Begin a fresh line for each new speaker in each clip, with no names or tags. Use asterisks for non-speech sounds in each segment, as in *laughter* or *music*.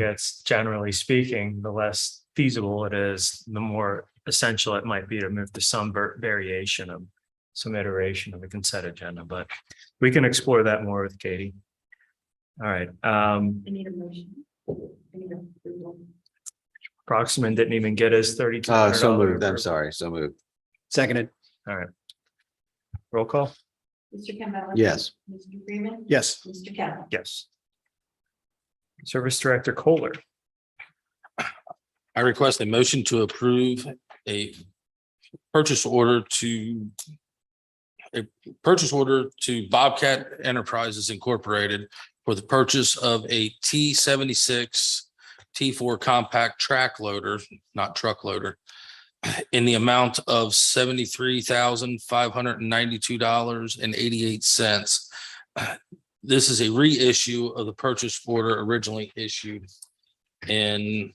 gets, generally speaking, the less feasible it is, the more essential it might be to move to some ver- variation of some iteration of the consent agenda, but we can explore that more with Katie. All right, um,
I need a motion. I need approval.
Proxman didn't even get his thirty-two
Uh,
hundred
so moved. I'm sorry. So moved.
Seconded.
Roll call?
Mr. Campbell.
Yes.
Mr. Freeman.
Yes.
Mr. Kelly.
Yes. Service Director Kohler.
I request a motion to approve a purchase order to a purchase order to Bobcat Enterprises Incorporated for the purchase of a T seventy-six T four compact track loader, not truck loader, *clears throat* in the amount of seventy-three thousand five hundred and ninety-two dollars and eighty-eight cents. *clears throat* This is a reissue of the purchase order originally issued in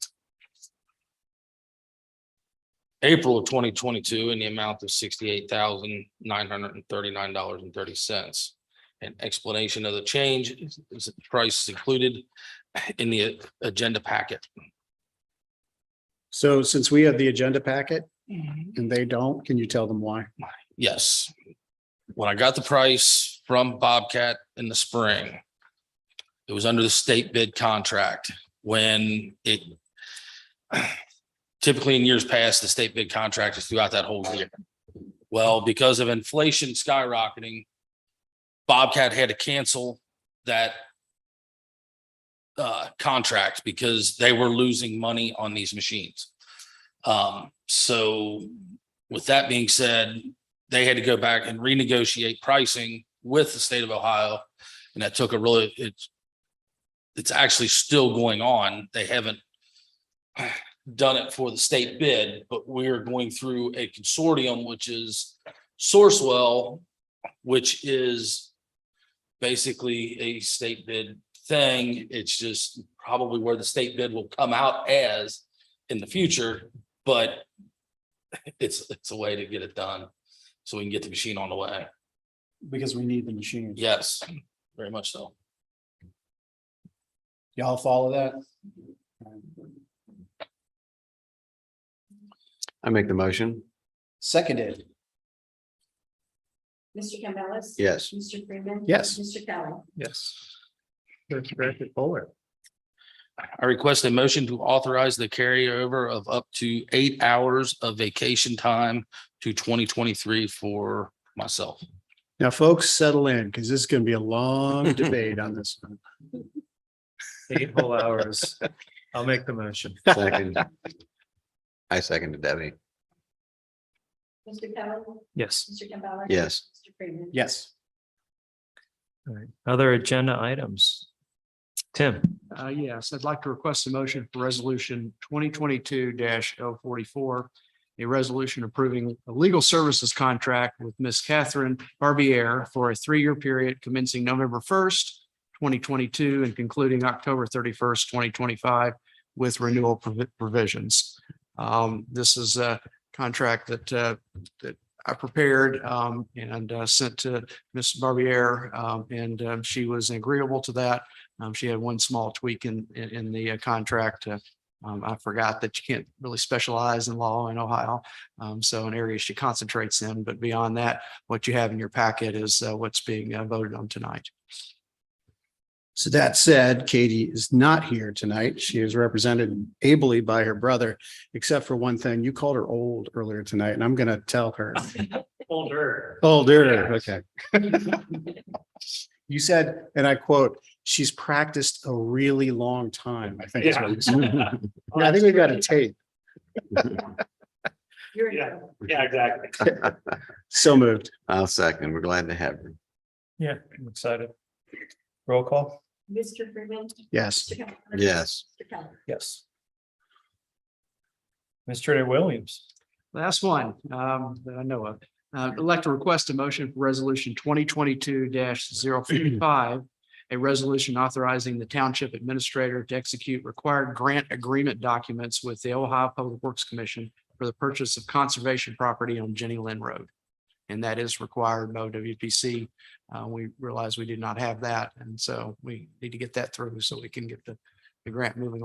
April of twenty twenty-two in the amount of sixty-eight thousand nine hundred and thirty-nine dollars and thirty cents. An explanation of the change is is the price is included in the agenda packet.
So since we have the agenda packet and they don't, can you tell them why?
Yes. When I got the price from Bobcat in the spring, it was under the state bid contract when it typically in years past, the state bid contract is throughout that whole year. Well, because of inflation skyrocketing, Bobcat had to cancel that uh, contract because they were losing money on these machines. Um, so with that being said, they had to go back and renegotiate pricing with the state of Ohio. And that took a really, it's, it's actually still going on. They haven't *sighs* done it for the state bid, but we're going through a consortium, which is Sourcewell, which is basically a state bid thing. It's just probably where the state bid will come out as in the future, but *laughs* it's, it's a way to get it done. So we can get the machine on the way.
Because we need the machine.
Yes, very much so.
Y'all follow that?
I make the motion.
Seconded.
Mr. Campbell.
*laughs*
Yes.
Mr. Freeman.
Yes.
Mr. Kelly.
Yes. Service Director Kohler.
I request a motion to authorize the carryover of up to eight hours of vacation time to twenty twenty-three for myself.
Now, folks, settle in because this is going to be a long debate on this. one.
Eight whole hours. I'll make the motion.
Second. I seconded eh? Debbie.
Mr. Kelly.
Yes.
Mr. Campbell.
Yes.
Mr. Freeman.
Yes.
All right. Other agenda items? Tim,
Uh, yes, I'd like to request a motion for resolution twenty twenty-two 44 A resolution approving a legal services contract with Miss Catherine Barbier for a three-year period commencing November first, twenty twenty-two and concluding October thirty-first, twenty twenty-five with renewal provi- provisions. Um, this is a contract that, uh, that I prepared, um, and, uh, sent to Miss Barbier, um, and, um, she was agreeable to that. Um, she had one small tweak in, in, in the uh, contract. uh, Um, I forgot that you can't really specialize in law in Ohio. Um, so an area she concentrates in, but beyond that, what you have in your packet is uh, what's being uh, voted on tonight.
So that said, Katie is not here tonight. She is represented ably by her brother, except for one thing. You called her old earlier tonight and I'm going to tell her.
Older.
Older, okay. You said, and I quote, she's practiced a really long time, I think. is what you said. Yeah, I think we got a tape.
*laughs* You're in.
Yeah.
trouble.
Yeah, exactly.
So moved.
I'll second. We're glad to have her.
Yeah, I'm excited. Roll call?
Mr. Freeman.
Yes.
Mr. Campbell.
Yes.
Mr. Kelly.
Yes. Mr. Williams.
Last one, um, that I know of. Uh, I'd like to request a motion for resolution twenty twenty-two 55 A resolution authorizing the township administrator to execute required grant agreement documents with the Ohio Public Works Commission for the purchase of conservation property on Jenny Lynn Road. And that is required by WPC. Uh, we realize we did not have that, and so we need to get that through so we can get the, the grant moving along.